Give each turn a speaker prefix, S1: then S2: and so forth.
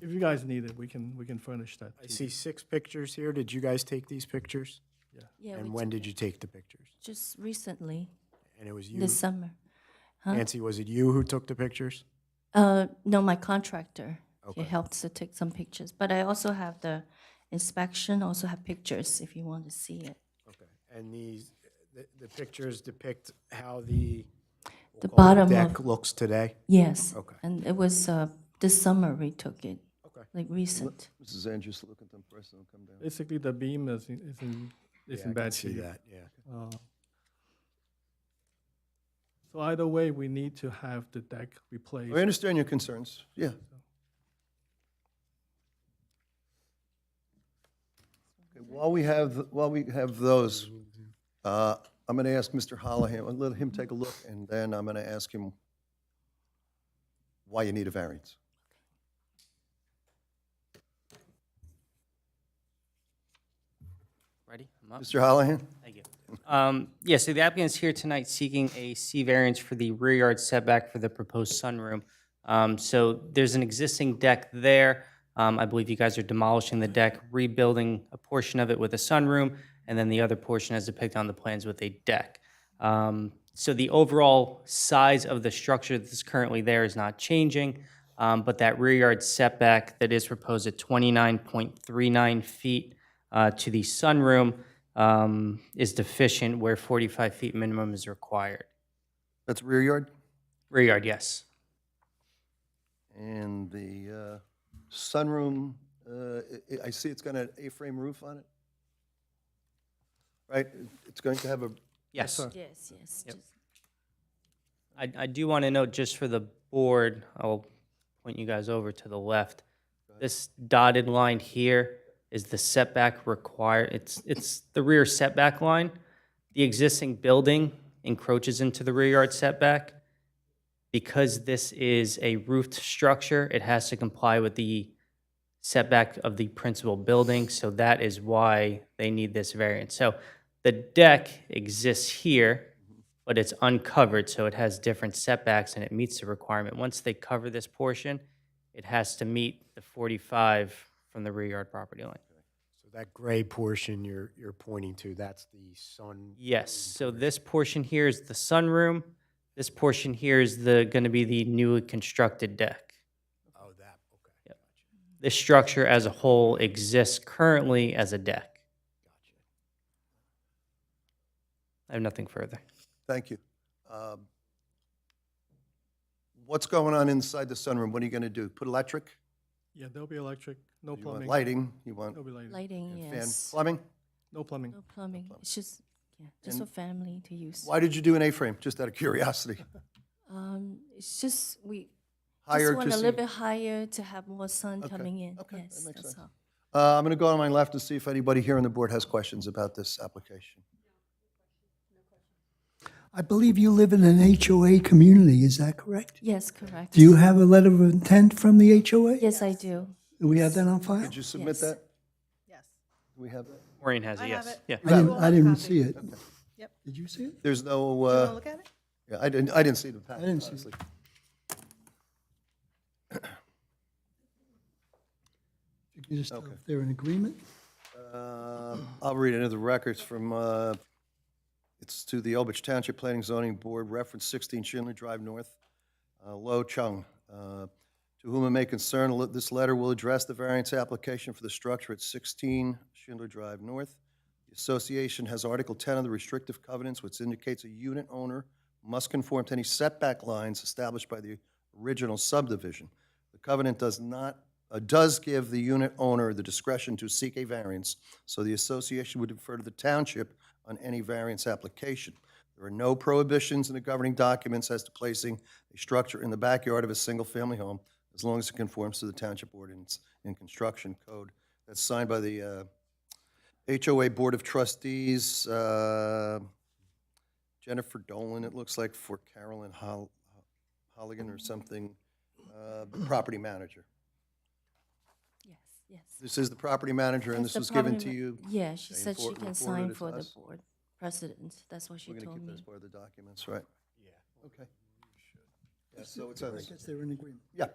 S1: If you guys need it, we can, we can furnish that.
S2: I
S1: to you.
S2: see six pictures here. Did you guys take these pictures?
S3: Yeah,
S2: And
S3: we
S2: when did you take the pictures?
S3: just recently,
S2: And it was you,
S3: this summer.
S2: Nancy, was it you who took the pictures?
S3: Uh, no, my contractor, he helped to take some pictures, but I also have the inspection, also have pictures if you want to see it.
S2: Okay. And these, the, the pictures depict how the
S3: The bottom
S2: deck
S3: of,
S2: looks today?
S3: yes.
S2: Okay.
S3: And it was, uh, this summer we took it,
S2: Okay.
S3: like recent.
S4: Mrs. Andrews, look at them first and come down.
S1: Basically, the beam is, in- is in, is
S2: Yeah, I
S1: in
S2: can
S1: bad
S2: See
S1: shape.
S2: that, yeah.
S1: Uh, So either way, we need to have the deck replaced.
S4: I understand your concerns, yeah. Okay, While we have, while we have those, uh, I'm going to ask Mr. Hollihan, I'll let him take a look, and then I'm going to ask him why you need a variance.
S5: Ready? I'm up.
S4: Mr. Hollihan?
S5: Thank you. Um, Yeah, so the applicant's here tonight seeking a C variance for the rear yard setback for the proposed sunroom. Um, So there's an existing deck there. Um, I believe you guys are demolishing the deck, rebuilding a portion of it with a sunroom, and then the other portion as depicted on the plans with a deck. Um, So the overall size of the structure that's currently there is not changing, um, but that rear yard setback that is proposed at 29.39 feet uh, to the sunroom um, is deficient where 45 feet minimum is required.
S4: That's rear yard?
S5: Rear yard, yes.
S4: And the uh, sunroom, uh, I- I see it's got an A-frame roof on it? Right, it's going to have a
S5: Yes.
S3: Yes, yes. just-
S5: I, I do want to note, just for the board, I'll point you guys over to the left. This dotted line here is the setback required, it's, it's the rear setback line. The existing building encroaches into the rear yard setback. Because this is a roofed structure, it has to comply with the setback of the principal building, so that is why they need this variance. So the deck exists here, but it's uncovered, so it has different setbacks and it meets the requirement. Once they cover this portion, it has to meet the 45 from the rear yard property line.
S2: So that gray portion you're, you're pointing to, that's the sun.
S5: Yes, so this portion here is the sunroom. This portion here is the, going to be the newly constructed deck.
S2: Oh, that, okay.
S5: This structure as a whole exists currently as a deck. I have nothing further.
S4: Thank you. Um, What's going on inside the sunroom? What are you going to do? Put electric?
S1: Yeah, there'll be electric, no
S4: You want
S1: plumbing.
S4: lighting? You want
S1: There'll be lighting,
S3: Lighting,
S4: fan
S3: yes.
S4: plumbing?
S1: no plumbing.
S3: No plumbing, it's just, yeah, just for family to use.
S4: Why did you do an A-frame? Just out of curiosity.
S3: Um, it's just, we
S4: Higher
S3: just want a
S4: to
S3: little
S4: see.
S3: bit higher to have more sun coming in,
S4: okay, that
S3: yes,
S4: makes
S3: that's
S4: sense.
S3: all.
S4: Uh, I'm going to go on my left and see if anybody here on the board has questions about this application.
S6: I believe you live in an HOA community, is that correct?
S3: Yes, correct.
S6: Do you have a letter of intent from the HOA?
S3: Yes, I do.
S6: Do we have that on file?
S4: Did you submit
S3: Yes.
S4: that?
S7: Yes.
S4: Do we have that?
S5: Maureen has
S7: I
S5: a
S7: have
S5: yes.
S7: it.
S5: Yeah.
S6: I didn't,
S7: Well,
S6: I didn't
S7: copy.
S6: see it.
S7: Yep.
S6: Did you see it?
S4: There's no,
S7: You want to
S4: uh,
S7: look at it?
S4: yeah, I didn't, I didn't see the package,
S6: didn't see it.
S4: honestly.
S6: You can just tell if they're in agreement.
S4: Uh, I'll read into the records from, uh, it's to the Elbridge Township Planning Zoning Board, reference 16 Schindler Drive North, uh, Lo Chung. Uh, To whom it may concern, le- this letter will address the variance application for the structure at 16 Schindler Drive North. The association has Article 10 of the restrictive covenants, which indicates a unit owner must conform to any setback lines established by the original subdivision. The covenant does not, uh, does give the unit owner the discretion to seek a variance, so the association would defer to the township on any variance application. There are no prohibitions in the governing documents as to placing a structure in the backyard of a single-family home as long as it conforms to the township ordinance and construction code. That's signed by the uh, HOA Board of Trustees, uh, Jennifer Dolan, it looks like, for Carolyn Hol- Holligan or something, uh, the property manager.
S3: Yes, yes.
S4: This is the property manager, and
S3: That's
S4: this
S3: the
S4: was given
S3: problem
S4: to
S3: with-
S4: you.
S3: Yeah, she
S4: and
S3: said she can
S4: for- reported
S3: sign
S4: it
S3: for the
S4: us?
S3: board president, that's what she
S4: We're going to
S3: told
S4: keep that as
S3: me.
S4: part of the documents, right? Yeah. Okay. Yeah, so it's, on
S6: I
S4: the-
S6: guess they're in agreement.
S4: yeah,